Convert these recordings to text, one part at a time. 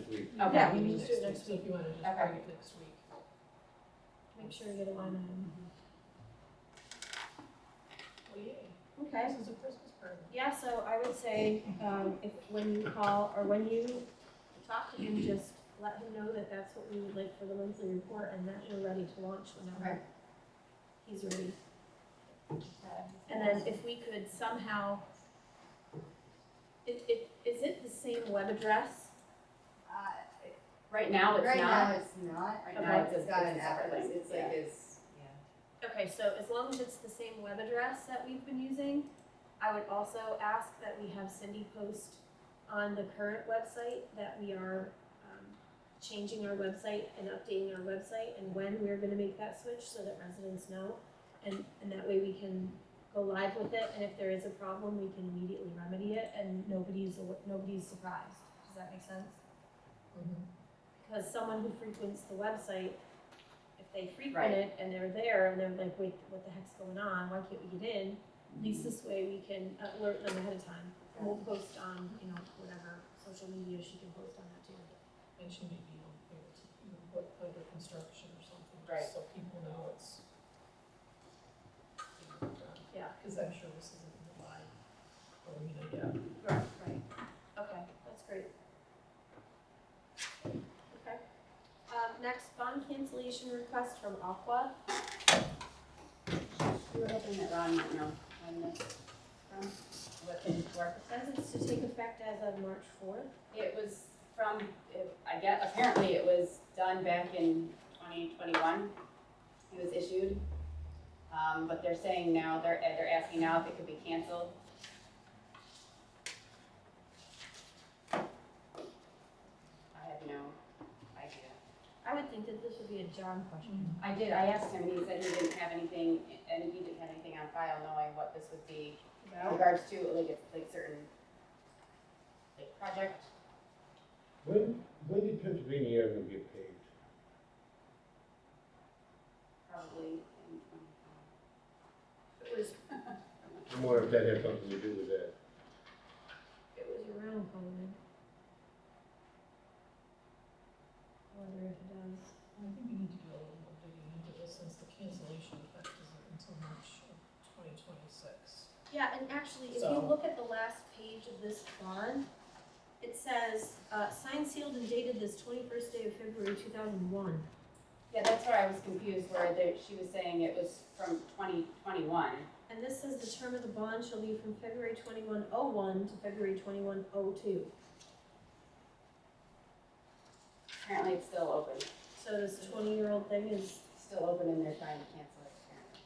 Okay. Yeah, we we can need just do it to do it next week, you wanna just Okay. bring it next week. Make sure you get a line item. Well, yay, Okay. this is a Christmas present. Yeah, so I would say, um, if, when you call, or when you talk to him, just let him know that that's what we would like for the monthly report, and that we're ready to launch whenever he's ready. Uh, And then if we could somehow, it, it, is it the same web address? Uh, Right now, it's Right now, not, it's not, right Okay. now, It's it's a- got it's an a separate address, link, it's like yeah. it's, yeah. Okay, so as long as it's the same web address that we've been using, I would also ask that we have Cindy post on the current website that we are um, changing our website and updating our website and when we're gonna make that switch so that residents know. And, and that way we can go live with it and if there is a problem, we can immediately remedy it and nobody's, aw- nobody's surprised. Does that make sense? Because someone who frequents the website, if they Right. frequent it and they're there and they're like, wait, what the heck's going on? Why can't we get in? At least this way we can alert them ahead of time. And we'll post on, you know, whatever social media she can post on that too. And she may be on there, to, you know, what, under construction or something, Right. just so people know it's. you know, done. Yeah. Cause I'm sure this isn't in the live, or, you know, yeah. Right, right. Okay, that's great. Okay. Um, next, bond cancellation request from Aqua. we were hoping that Ron might know when this, from, what it's for. Says it's to take effect as of March fourth. It was from, it- I guess, apparently it was done back in twenty twenty-one. It was issued. Um, but they're saying now, they're, eh, they're asking now if it could be canceled. I have no idea. I would think that this would be a John question. I did, I asked him, and he said he didn't have anything, and he didn't have anything on file knowing what this would be in regards to, like, it's like certain, like, project. When, when did Pennsylvania Avenue get paved? probably in twenty-five. It was, I wonder if that had something to do with that. It was around COVID. I wonder if it does. I think we need to do a little more digging into this, since the cancellation effect isn't until March of twenty twenty-six. Yeah, and actually, if you So- look at the last page of this bond, it says, uh, signed, sealed, and dated this twenty-first day of February two thousand one. yeah, that's where I was confused, where they, she was saying it was from twenty twenty-one. And this says the term of the bond shall be from February twenty-one oh one to February twenty-one oh two. Apparently it's still open, So this twenty-year-old thing is, still open and they're trying to cancel it apparently.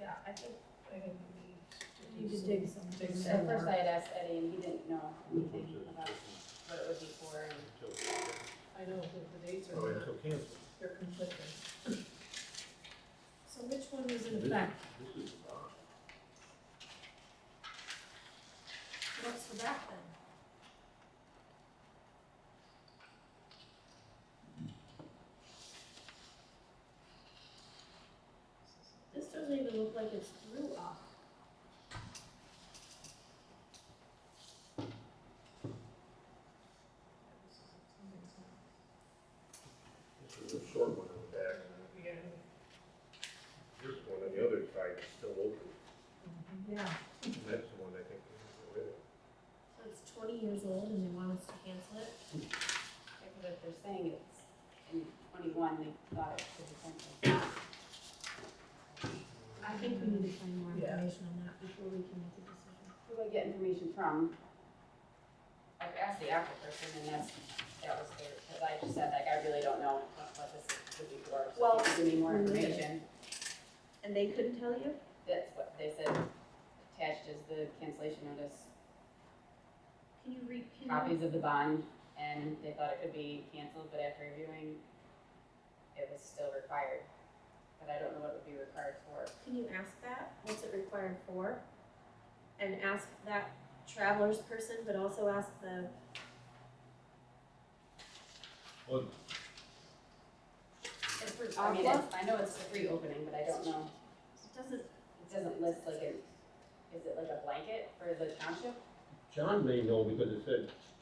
yeah, I think I think we need to we need do to some- dig some. dig some At first more. I had asked Eddie and he didn't know Oh, anything about what it would be for and. I know, the, the dates Oh, are not, until canceled. they're conflicting. So which one was in This effect? is- This is uh, the bond. What's the back then? This doesn't even look like it's through off. This is a short one on the back. Yeah. This one on the other side is still open. Yeah. And That's the one I think. So it's twenty years old and they want us to cancel it? Yeah, but if they're saying it's in twenty-one, they thought it was essential. I think we need to find more Yeah. information on that before we can make a decision. Who do I get information from? I've asked the Apple person and that's, that was their, cause I just said like, I really don't know what, what this would be for. so Well, if you Give me more we need it. information. And they couldn't tell you? That's what they said attached is the cancellation notice, Can you read, can you? copies of the bond, and they thought it could be canceled, but after reviewing, it was still required. But I don't know what it would be required for. Can you ask that? What's it required for? And ask that traveler's person, but also ask the Well, It's for, I mean, it's, I know it's a free opening, but I don't know, It doesn't, it doesn't list like a, is it like a blanket for the township? John may know because it said